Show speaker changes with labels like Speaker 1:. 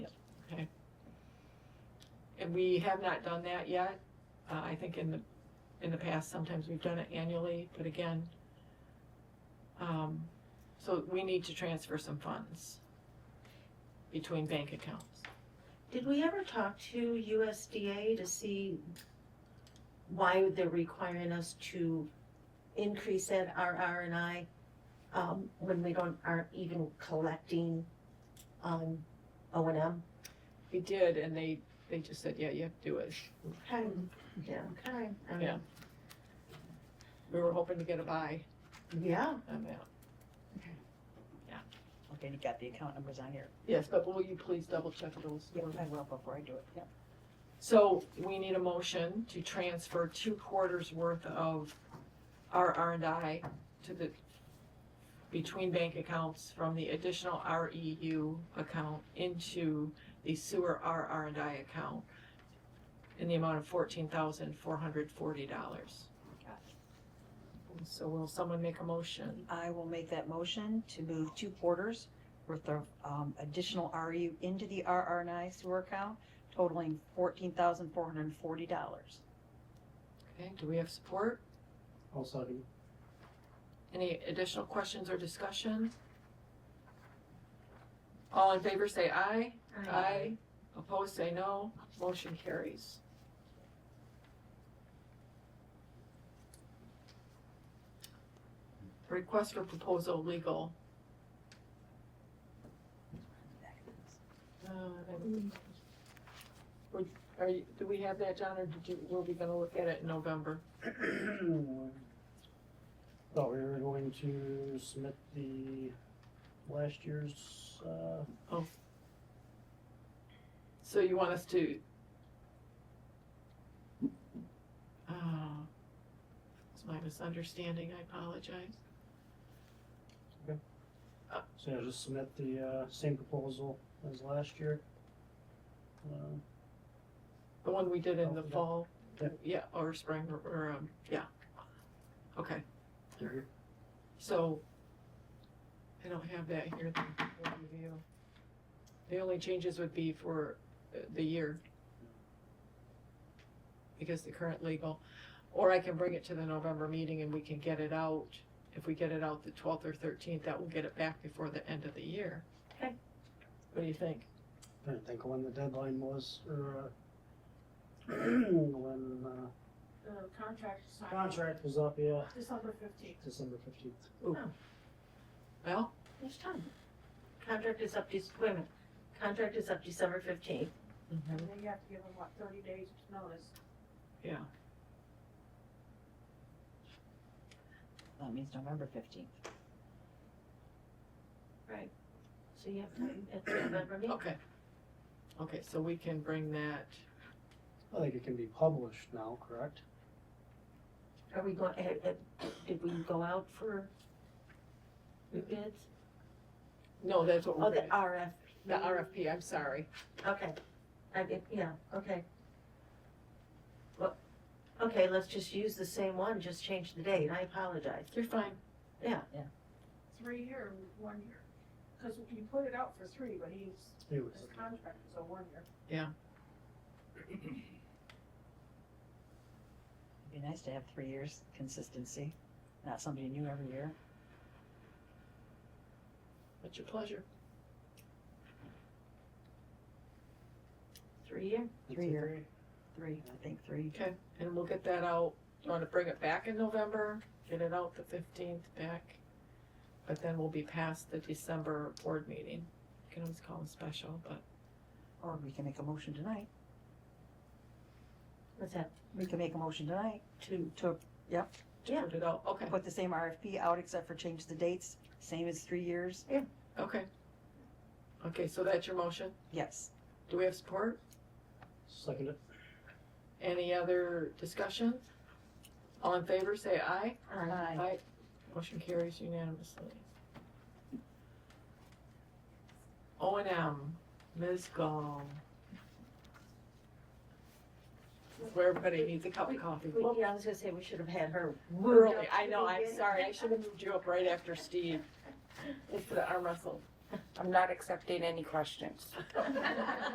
Speaker 1: and we have not done that yet. Uh, I think in the, in the past, sometimes we've done it annually, but again, um, so we need to transfer some funds between bank accounts.
Speaker 2: Did we ever talk to USDA to see why they're requiring us to increase that RR and I um, when we don't, aren't even collecting, um, O and M?
Speaker 1: We did, and they, they just said, yeah, you have to do it.
Speaker 2: Okay, yeah, okay, I mean,
Speaker 1: Yeah. We were hoping to get a buy
Speaker 2: yeah,
Speaker 1: on that.
Speaker 3: Okay, you got the account numbers on here.
Speaker 1: Yes, but will you please double check those?
Speaker 3: Yeah, I will before I do it, yeah.
Speaker 1: So we need a motion to transfer two quarters worth of our R and I to the, between bank accounts from the additional REU account into the sewer R R and I account in the amount of fourteen thousand four hundred forty dollars.
Speaker 3: Got
Speaker 1: So will someone make a motion?
Speaker 3: I will make that motion to move two quarters worth of um, additional RU into the RRNI sewer account totaling fourteen thousand four hundred and forty dollars.
Speaker 1: Okay, do we have support?
Speaker 4: I'll second.
Speaker 1: Any additional questions or discussion? All in favor say aye.
Speaker 2: Aye.
Speaker 1: Opposed say no. Motion carries. Request for proposal legal. Uh, and- Would- Are you, do we have that, John, or did you, were we gonna look at it in November?
Speaker 4: Thought we were going to submit the last year's, uh,
Speaker 1: So you want us to? Uh, It's my misunderstanding, I apologize.
Speaker 4: so yeah, just submit the, uh, same proposal as last year. Uh,
Speaker 1: The one we did in the
Speaker 4: Oh, yeah.
Speaker 1: fall,
Speaker 4: Yeah.
Speaker 1: yeah, or spring, or- or, um, yeah. Okay,
Speaker 4: mhm.
Speaker 1: so, I don't have that here, the overview. The only changes would be for uh, the year. Because the current legal, or I can bring it to the November meeting and we can get it out. If we get it out the twelfth or thirteenth, that will get it back before the end of the year.
Speaker 2: Okay.
Speaker 1: What do you think?
Speaker 4: Trying to think of when the deadline was, or, uh, when, uh,
Speaker 5: the contract is signed.
Speaker 4: contract was up, yeah,
Speaker 5: December fifteenth.
Speaker 4: December fifteenth.
Speaker 1: Well,
Speaker 2: there's time. Contract is up, Dec- wait a minute, contract is up December fifteenth.
Speaker 5: And
Speaker 4: Mm-hmm.
Speaker 5: then you have to give them, what, thirty days notice?
Speaker 3: That means November fifteenth.
Speaker 2: So you have time at the November meeting?
Speaker 1: okay. Okay, so we can bring that,
Speaker 4: I think it can be published now, correct?
Speaker 2: Are we going, eh, eh, did we go out for bids?
Speaker 1: no, that's what
Speaker 2: Oh,
Speaker 1: we're
Speaker 2: the
Speaker 1: gonna
Speaker 2: RF.
Speaker 1: The RFP, I'm sorry.
Speaker 2: Okay, I get, yeah, okay. Well, okay, let's just use the same one, just change the date, I apologize.
Speaker 1: You're fine.
Speaker 5: Three year, one year. Cause you put it out for three, but he's,
Speaker 4: It was,
Speaker 5: his contract is a one year.
Speaker 3: It'd be nice to have three years consistency, not somebody new every year.
Speaker 1: What's your pleasure?
Speaker 2: Three year?
Speaker 3: Three year. Three, I think three.
Speaker 1: Okay, and we'll get that out. You want to bring it back in November? Get it out the fifteenth back. But then we'll be past the December board meeting. You can always call them special, but
Speaker 3: Or we can make a motion tonight.
Speaker 2: What's that,
Speaker 3: We can make a motion tonight
Speaker 2: two?
Speaker 3: to
Speaker 1: to put it out, okay,
Speaker 3: put the same RFP out except for change the dates, same as three years.
Speaker 1: okay. Okay, so that's your motion.
Speaker 3: Yes.
Speaker 1: Do we have support?
Speaker 4: Second it.
Speaker 1: Any other discussion? All in favor, say aye.
Speaker 2: Uh,
Speaker 3: Aye.
Speaker 1: Motion carries unanimously. O and M, Ms. Gall. This is Where everybody needs a cup of coffee.
Speaker 2: we- yeah, I was gonna say, we should have had her.
Speaker 1: Early, I know, I'm sorry, I should have moved you up right after Steve. It's the arm wrestle.
Speaker 6: I'm not accepting any questions.